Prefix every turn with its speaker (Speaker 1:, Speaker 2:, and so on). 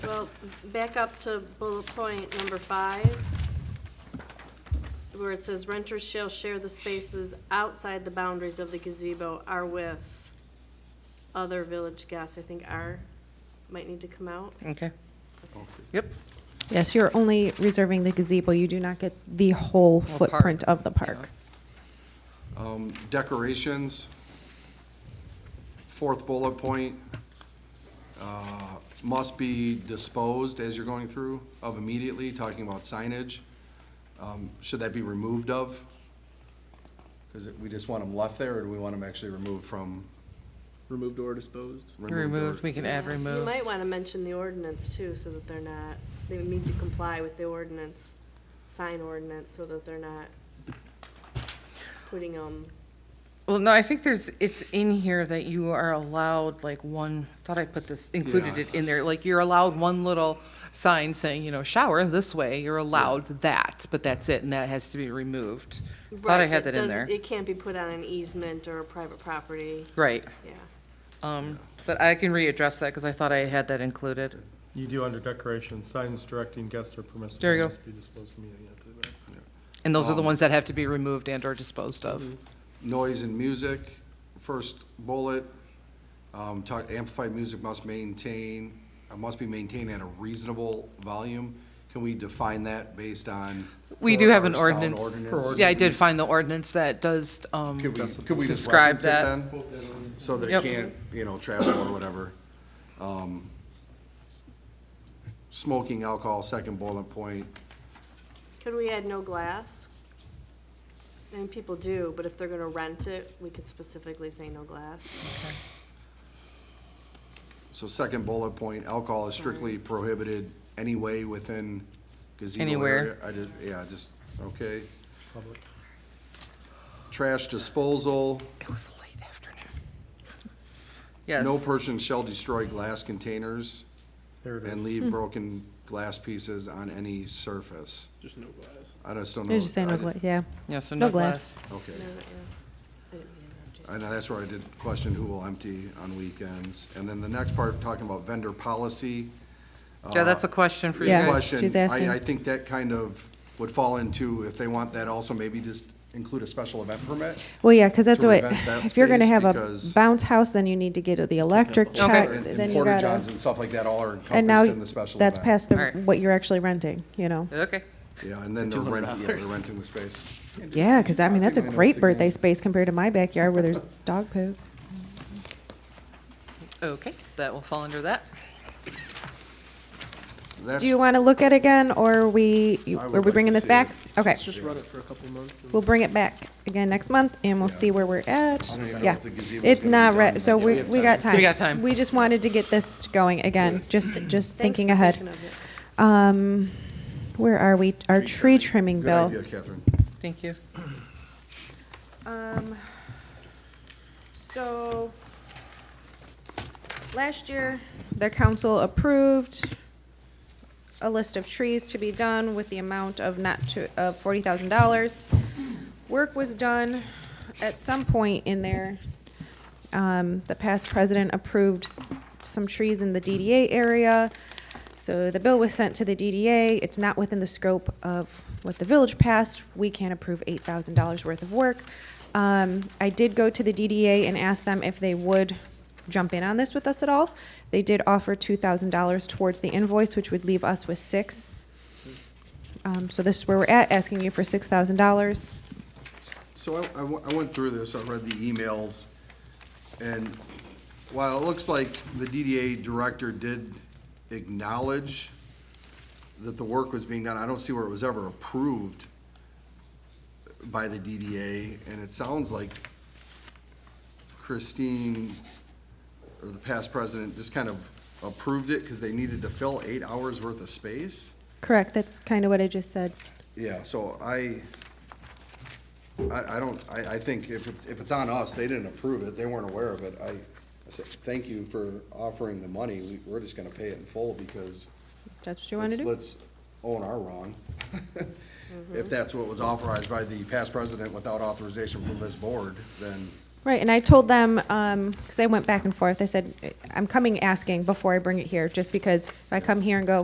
Speaker 1: Well, back up to bullet point number five, where it says renters shall share the spaces outside the boundaries of the gazebo are with other village guests. I think "are" might need to come out.
Speaker 2: Okay. Yep.
Speaker 3: Yes, you're only reserving the gazebo. You do not get the whole
Speaker 2: park.
Speaker 3: footprint of the park.
Speaker 4: Um, Decorations, fourth bullet point, uh, must be disposed as you're going through of immediately, talking about signage. Um, Should that be removed of? Because we just want them left there, or do we want them actually removed from?
Speaker 5: Removed or disposed?
Speaker 4: or-
Speaker 2: Removed, we can add
Speaker 1: You
Speaker 2: removed.
Speaker 1: might want to mention the ordinance too, so that they're not, they would need to comply with the ordinance, sign ordinance, so that they're not putting them,
Speaker 2: Well, no, I think there's, it's in here that you are allowed like one, thought I put this, included
Speaker 4: Yeah.
Speaker 2: it in there, like you're allowed one little sign saying, you know, shower this way, you're allowed that, but that's it, and that has to be removed. Thought I
Speaker 1: Right, it
Speaker 2: had that in
Speaker 1: does-
Speaker 2: there.
Speaker 1: It can't be put on an easement or a private property,
Speaker 2: Right,
Speaker 1: yeah.
Speaker 2: um, but I can readdress that because I thought I had that included.
Speaker 5: You do under decoration, signs directing guests are permissible.
Speaker 2: There you go.
Speaker 5: Must be disposed immediately after the event.
Speaker 2: And those are the
Speaker 4: Um, hmm.
Speaker 2: ones that have to be removed and or disposed of.
Speaker 4: Noise and music, first bullet, um, talk, amplified music must maintain, uh, must be maintained at a reasonable volume. Can we define that based on?
Speaker 2: We do have an
Speaker 4: our sound
Speaker 2: ordinance. Yeah, I did find the ordinance that does, um,
Speaker 4: Could we, could we just
Speaker 2: Describe
Speaker 4: reference it
Speaker 2: that.
Speaker 4: then? So that
Speaker 2: Yep.
Speaker 4: it can't, you know, travel or whatever. Um, Smoking alcohol, second bullet point,
Speaker 1: Could we add no glass? I mean, people do, but if they're gonna rent it, we could specifically say no glass.
Speaker 4: so second bullet point, alcohol is strictly prohibited anyway within gazebo
Speaker 2: Anywhere.
Speaker 4: area. I just, yeah, just, okay. Trash disposal,
Speaker 2: it was a late afternoon. Yes.
Speaker 4: no person shall destroy glass containers
Speaker 5: There it
Speaker 4: and
Speaker 5: is.
Speaker 2: Hmm.
Speaker 4: leave broken glass pieces on any surface.
Speaker 5: Just no glass.
Speaker 4: I just don't know.
Speaker 3: You're just saying,
Speaker 4: I
Speaker 3: no
Speaker 4: did-
Speaker 3: gla- yeah.
Speaker 2: Yeah, so
Speaker 3: no
Speaker 2: no glass.
Speaker 3: glass.
Speaker 4: Okay.
Speaker 1: No, no, yeah. I didn't mean to interrupt you.
Speaker 4: I know, that's where I did question who will empty on weekends. And then the next part, talking about vendor policy. Ah.
Speaker 2: Yeah, that's a question for you
Speaker 3: Yeah.
Speaker 2: guys.
Speaker 4: Question,
Speaker 3: she's asking.
Speaker 4: I, I think that kind of would fall into, if they want that also, maybe just include a special event permit.
Speaker 3: Well, yeah, because that's
Speaker 4: To
Speaker 3: what,
Speaker 4: prevent that
Speaker 3: if you're gonna
Speaker 4: space
Speaker 3: have a
Speaker 4: because-
Speaker 3: bounce house, then you need to get the electric
Speaker 2: Okay.
Speaker 3: check,
Speaker 4: And-
Speaker 3: then
Speaker 4: And
Speaker 3: you
Speaker 4: Porter
Speaker 3: gotta.
Speaker 4: Johns and stuff like that all are encompassed
Speaker 3: And now,
Speaker 4: in the special event.
Speaker 3: that's past the,
Speaker 2: Alright.
Speaker 3: what you're actually renting, you know?
Speaker 2: Okay.
Speaker 4: Yeah, and then they're renting, yeah, they're renting the space.
Speaker 3: Yeah, because I mean, that's a
Speaker 4: I know it's
Speaker 3: great
Speaker 4: a
Speaker 3: birthday
Speaker 4: game.
Speaker 3: space compared to my backyard where there's dog poop.
Speaker 2: Okay, that will fall under that.
Speaker 4: That's,
Speaker 3: Do you want to look at it again, or are we, you-
Speaker 4: I would
Speaker 3: are we
Speaker 4: like
Speaker 3: bringing
Speaker 4: to
Speaker 3: this
Speaker 4: see
Speaker 3: back?
Speaker 4: it.
Speaker 3: Okay,
Speaker 5: Just run it for a couple months.
Speaker 3: we'll bring it back again next month, and we'll
Speaker 4: Yeah.
Speaker 3: see where we're at.
Speaker 4: I don't even know
Speaker 3: Yeah,
Speaker 4: if the gazebo's
Speaker 3: it's
Speaker 4: gonna be
Speaker 3: not,
Speaker 4: done
Speaker 3: re-
Speaker 4: by
Speaker 3: so
Speaker 4: the
Speaker 3: we,
Speaker 4: end of
Speaker 3: we
Speaker 4: the
Speaker 3: got
Speaker 4: summer.
Speaker 3: time.
Speaker 2: We got time.
Speaker 3: We just wanted to get this going again, just, just
Speaker 1: Thanks
Speaker 3: thinking
Speaker 1: for
Speaker 3: ahead.
Speaker 1: thinking of it.
Speaker 3: Um, where are we? Our tree trimming
Speaker 4: good
Speaker 3: bill.
Speaker 4: idea, Catherine.
Speaker 2: Thank you.
Speaker 3: Um, so, last year, the council approved a list of trees to be done with the amount of not to, of forty thousand dollars. Work was done at some point in there. Um, the past president approved some trees in the DDA area. So the bill was sent to the DDA. It's not within the scope of what the village passed. We can't approve eight thousand dollars worth of work. Um, I did go to the DDA and ask them if they would jump in on this with us at all. They did offer two thousand dollars towards the invoice, which would leave us with six. Um, so this is where we're at, asking you for six thousand dollars.
Speaker 4: So I, I wa- I went through this, I read the emails, and while it looks like the DDA director did acknowledge that the work was being done, I don't see where it was ever approved by the DDA, and it sounds like Christine, or the past president, just kind of approved it because they needed to fill eight hours worth of space.
Speaker 3: Correct, that's kind of what I just said.
Speaker 4: Yeah, so I, I, I don't, I, I think if it's, if it's on us, they didn't approve it, they weren't aware of it, I, I said, thank you for offering the money, we, we're just gonna pay it in full because.
Speaker 3: That's what you want to
Speaker 4: let's-
Speaker 3: do? Mm-hmm.
Speaker 4: Let's own our wrong. If that's what was authorized by the past president without authorization from this board, then
Speaker 3: Right, and I told them, um, because they went back and forth, I said, I'm coming asking before I bring it here, just because if I come here and go,